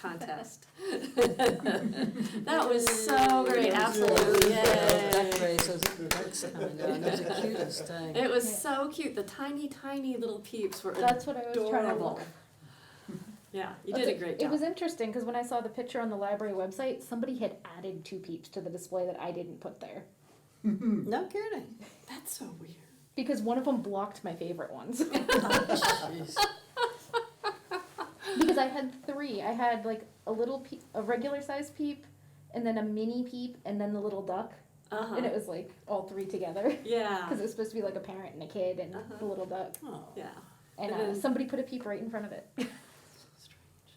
contest. That was so great, absolutely, Duck yay. races, ducks coming down, it was the cutest thing. It was so cute, the tiny, tiny little peeps were That's what I was trying to adorable. look. Yeah, you did a great It was job. interesting because when I saw the picture on the library website, somebody had added two peeps to the display that I didn't put there No kidding. That's so weird. because one of them blocked my favorite ones. Jeez. because I had three. I had like a little peep, a regular size peep, and then a mini peep, and then the little duck, and it Uh-huh, was like all three together. yeah, Because it was supposed to be like a parent and a kid and Uh-huh. the little duck, Oh, yeah. and And uh, then- somebody put a peep right in front of it.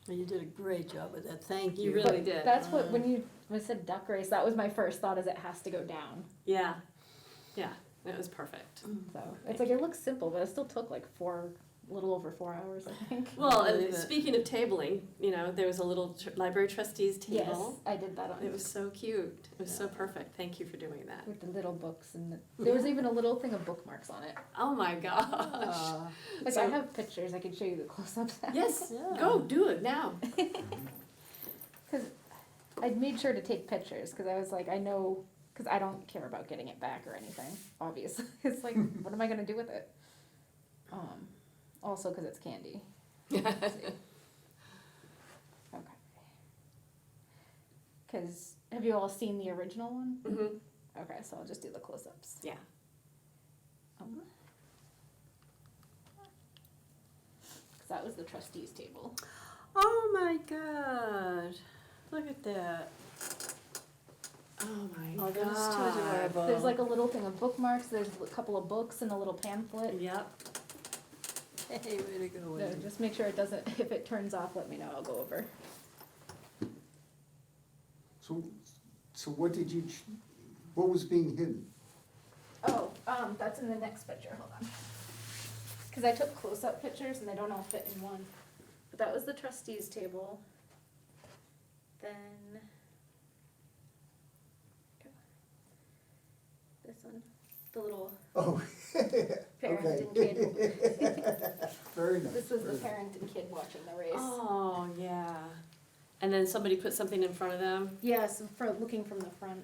Well, You did a great job with that, thank You you. really- But did. That's what when you when I said duck race, that was my first thought: is it has to go down. Yeah, yeah, it was perfect. So it's like it looks simple, but it still took like four, little over four hours, I think. Well, I believe and it. speaking of tabling, you know, there was a little tr- library trustees Yes, table. I did that on It was so cute, it was so Yeah. perfect, thank you for doing that. with the little books and the, there was even a little thing of bookmarks on it. Oh my gosh. Uh, Like I So- have pictures, I can show you the close-ups. Yes, Yeah. go, do it now. Because I made sure to take pictures because I was like, I know, because I don't care about getting it back or anything. Obviously, it's like, what am I gonna do with it? Um, also because it's candy. Let's see. Mm-hmm. Okay. Because have you all seen the original one? Mhm. Okay, so I'll just do the close-ups. Yeah. Um, 'cause that was the trustees table. Oh my god, look at that. Oh my Oh, god. that is too adorable. Ah, There's like a little thing of bookmarks. There's a couple of books and a little pamphlet. Yep. Hey, way to go, No, Wendy. just make sure it doesn't. If it turns off, let me know. I'll go over. So, so what did you, ch- what was being hidden? Oh, um, that's in the next picture. Hold on. Because I took close-up pictures and they don't all fit in one. But that was the trustees table. Then. This one, the little Oh, parent Okay. and kid. very nice. This was the very nice. parent and kid watching the race. Oh yeah. And then somebody put something in front of them. Yes, for looking from the front.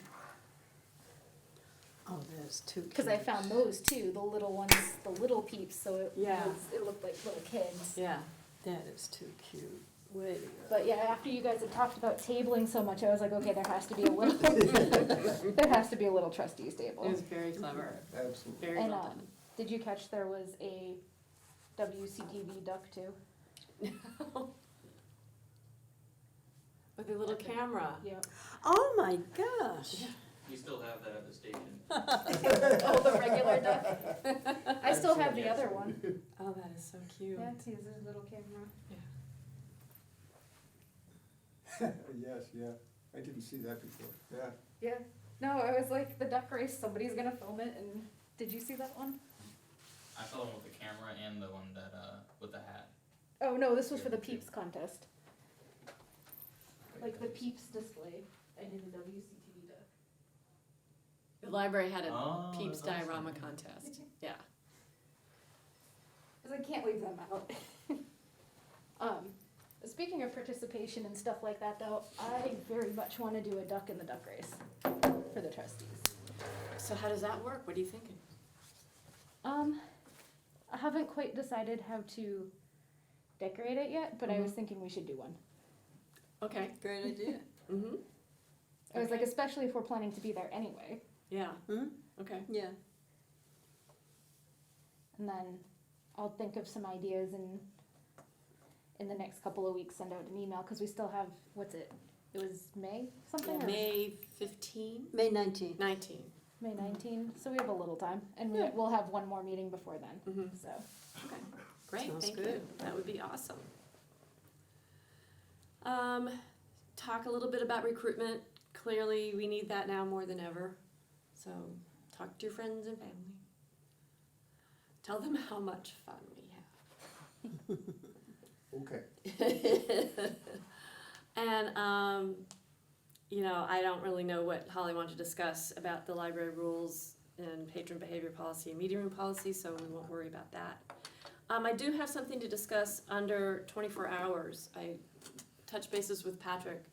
Oh, that is too cute. Because I found those too, the little ones, the little peeps, so it Yeah. was, it looked like little kids. Yeah. That is too cute, way to go. But yeah, after you guys had talked about tabling so much, I was like, okay, there has to be a little, there has to be a little trustees It table. was very clever. Absolutely. Very And, well um, done. Did you catch there was a WCTV duck too? With a little camera. Yep. Oh my gosh, We still have that at the station. Oh, the regular duck? I still have the other one. Oh, that is so cute. Yeah, it's his little camera. Yes, yeah, I didn't see that before, yeah. Yeah, no, I was like, the duck race, somebody's gonna film it and, did you see that one? I saw one with the camera and the one that, uh, with the hat. Oh, no, this was for the peeps contest. Like the peeps display, I did the WCTV duck. The library had a Oh, Peeps that's awesome. diorama contest. Yeah. Because I can't leave them out. um, speaking of participation and stuff like that, though, I very much want to do a duck in the duck race for the trustees. So how does that work? What are you thinking? Um, I haven't quite decided how to decorate it yet, but I was Mhm. thinking we should do one. Okay. great idea. Mm-hmm. I was like, Okay. especially if we're planning to be there anyway. Yeah. Hmm? Okay. Yeah, And then I'll think of some ideas and in the next couple of weeks send out an email because we still have what's it? It was May something or- May 15? May nineteenth. 19. May nineteenth, so we have a little time, and we- Yeah. we'll have one more meeting before then, Mm-hmm. so. Great, Sounds thank you. good. That would be awesome. Um, talk a little bit about recruitment. Clearly, we need that now more than ever. So, talk to your friends and family. Tell them how much fun we Okay, have. and, um, you know, I don't really know what Holly wanted to discuss about the library rules and patron behavior policy and meeting room policy, so we won't worry about that. Um, I do have something to discuss under twenty-four hours. I touch bases with Patrick